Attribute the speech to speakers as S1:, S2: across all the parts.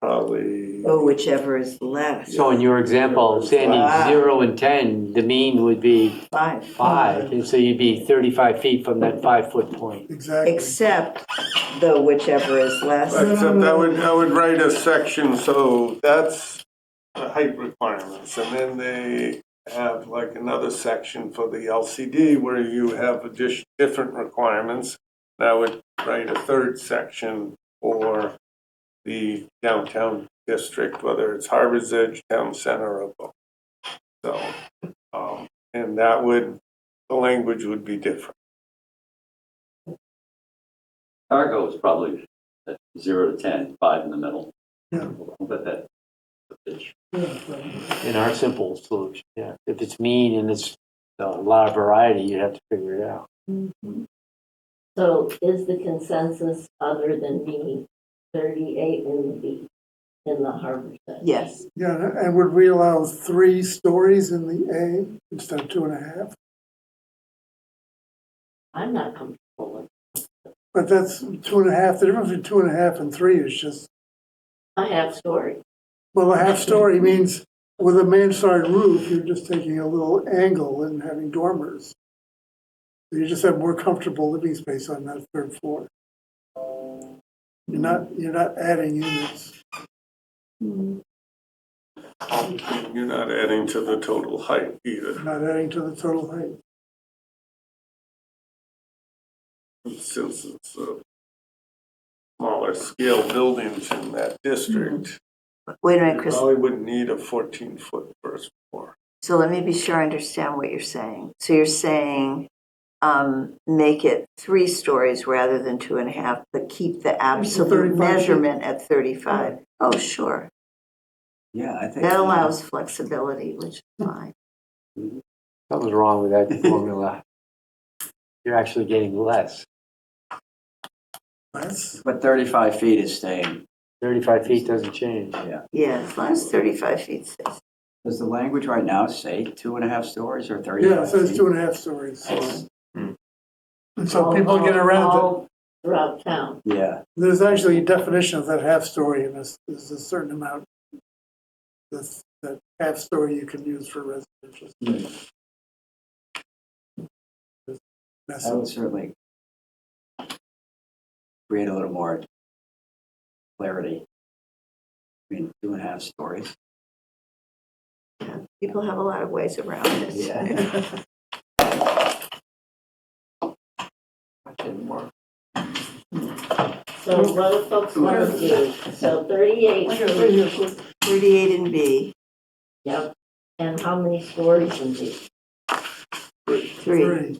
S1: probably,
S2: or Oh, whichever is less,
S3: So in your example,
S2: Wow.
S3: Sandy, zero and 10, the mean would be
S2: five.
S3: five. And so you'd be 35 feet from that five-foot point.
S4: Exactly.
S2: Except the whichever is less,
S1: except I would, I would write a section, so that's the height requirements. And then they have like another section for the LCD where you have addition, different requirements. And I would write a third section for the downtown district, whether it's Harbor's Edge, Town Center, or both. So, um, and that would, the language would be different.
S5: Cargo is probably at zero to ten, five in the middle. But that, the pitch.
S3: in our simple solution, yeah. If it's mean and it's a lot of variety, you'd have to figure it out.
S6: Mm-hmm. So is the consensus other than me, thirty-eight in the, in the harbor section?
S2: yes.
S4: Yeah, and would we allow three stories in the A instead of two and a half?
S6: I'm not comfortable with,
S4: But that's two and a half, the difference between two and a half and three is just,
S6: I have story.
S4: well, a half story means with a mansard roof, you're just taking a little angle and having dormers. You just have more comfortable living space on that third floor. You're not, you're not adding units.
S1: You're not adding to the total height either.
S4: not adding to the total height.
S1: since it's a smaller scale buildings in that district,
S2: Wait a minute,
S1: you
S2: Chris,
S1: probably wouldn't need a fourteen foot first floor.
S2: so let me be sure I understand what you're saying. So you're saying, um, make it three stories rather than two and a half, but keep the absolute
S4: 35 feet.
S2: measurement at thirty-five? Oh, sure,
S7: Yeah, I think.
S2: that allows flexibility, which is fine.
S3: Something's wrong with that formula. You're actually getting less.
S4: That's,
S7: But 35 feet is staying,
S3: 35 feet doesn't change.
S2: Yeah, as long as thirty-five feet says,
S7: does the language right now say two and a half stories or 35?
S4: yeah, it says
S7: feet?
S4: two and a half stories.
S7: It's-
S4: And so people get around it.
S6: All Throughout town.
S7: Yeah,
S4: There's actually a definition of that half story, and there's, there's a certain amount that's, that half story you can use for residential. space. That's-
S7: that
S2: Oh,
S7: would certainly create a little more clarity. I mean, two and a half stories.
S2: people have a lot of ways around this.
S6: So
S2: Mm-hmm.
S6: what do folks want to do? So thirty-eight,
S2: Thirty-eight in B,
S6: yep. And how many stories in the?
S2: three.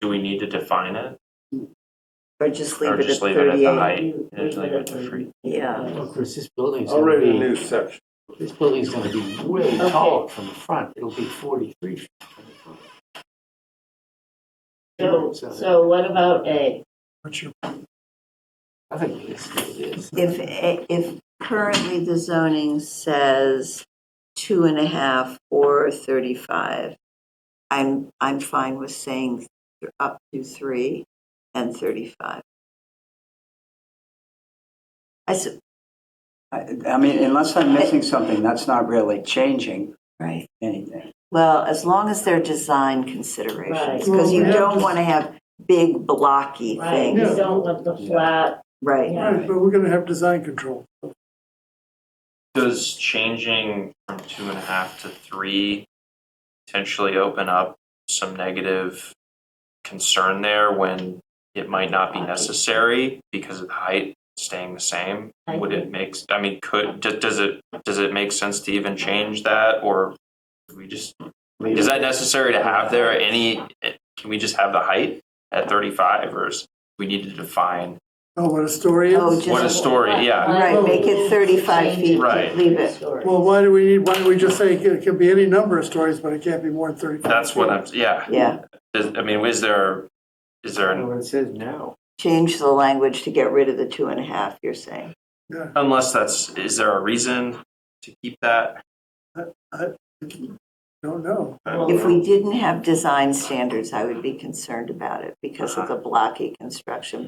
S8: Do we need to define it?
S2: Or just
S8: Or
S2: leave it at
S8: just leave it at the
S2: thirty-eight,
S8: height?
S6: You-
S8: And just leave it to free?
S2: yeah.
S3: Well, Chris, this building's
S1: I'll
S3: going
S1: write a
S3: to
S1: new section.
S3: be, this building's going to be way
S6: Okay.
S3: taller from the front. It'll be 43 feet.
S6: So, so what about A?
S4: What's your,
S3: I think this is.
S2: If, a- if currently the zoning says two and a half or 35, I'm, I'm fine with saying th- up to three and 35. I, s-
S7: I, I mean, unless I'm missing something, that's not really changing
S2: right,
S7: anything.
S2: well, as long as they're design considerations,
S6: Right.
S2: because you
S4: Well, yeah.
S2: don't want to have big blocky
S6: Right, you
S2: things,
S4: Yeah.
S6: don't want the flat,
S2: right?
S6: yeah.
S4: right, but we're gonna have design control.
S8: Does changing from two and a half to three potentially open up some negative concern there when it might not be necessary because of the height staying the same?
S6: I
S8: Would it
S6: think-
S8: make, s- I mean, could, do- does it, does it make sense to even change that or do we just, is that necessary to have there any, eh, can we just have the height at 35 or is we need to define
S4: Oh, what a story
S2: Oh,
S4: is?
S2: just-
S8: what a story, yeah.
S2: Right, make it 35 feet,
S8: Right.
S2: leave it.
S6: Stories.
S4: Well, why do we need, why don't we just say it can be any number of stories, but it can't be more than thirty-five?
S8: That's what I'm, yeah.
S2: Yeah,
S8: Is, I mean, is there, is there,
S3: I know
S8: an-
S3: what it says now.
S2: change the language to get rid of the two and a half, you're saying?
S8: unless that's, is there a reason to keep that?
S4: Don't know.
S2: If we didn't have design standards, I would be concerned about it because of the blocky construction,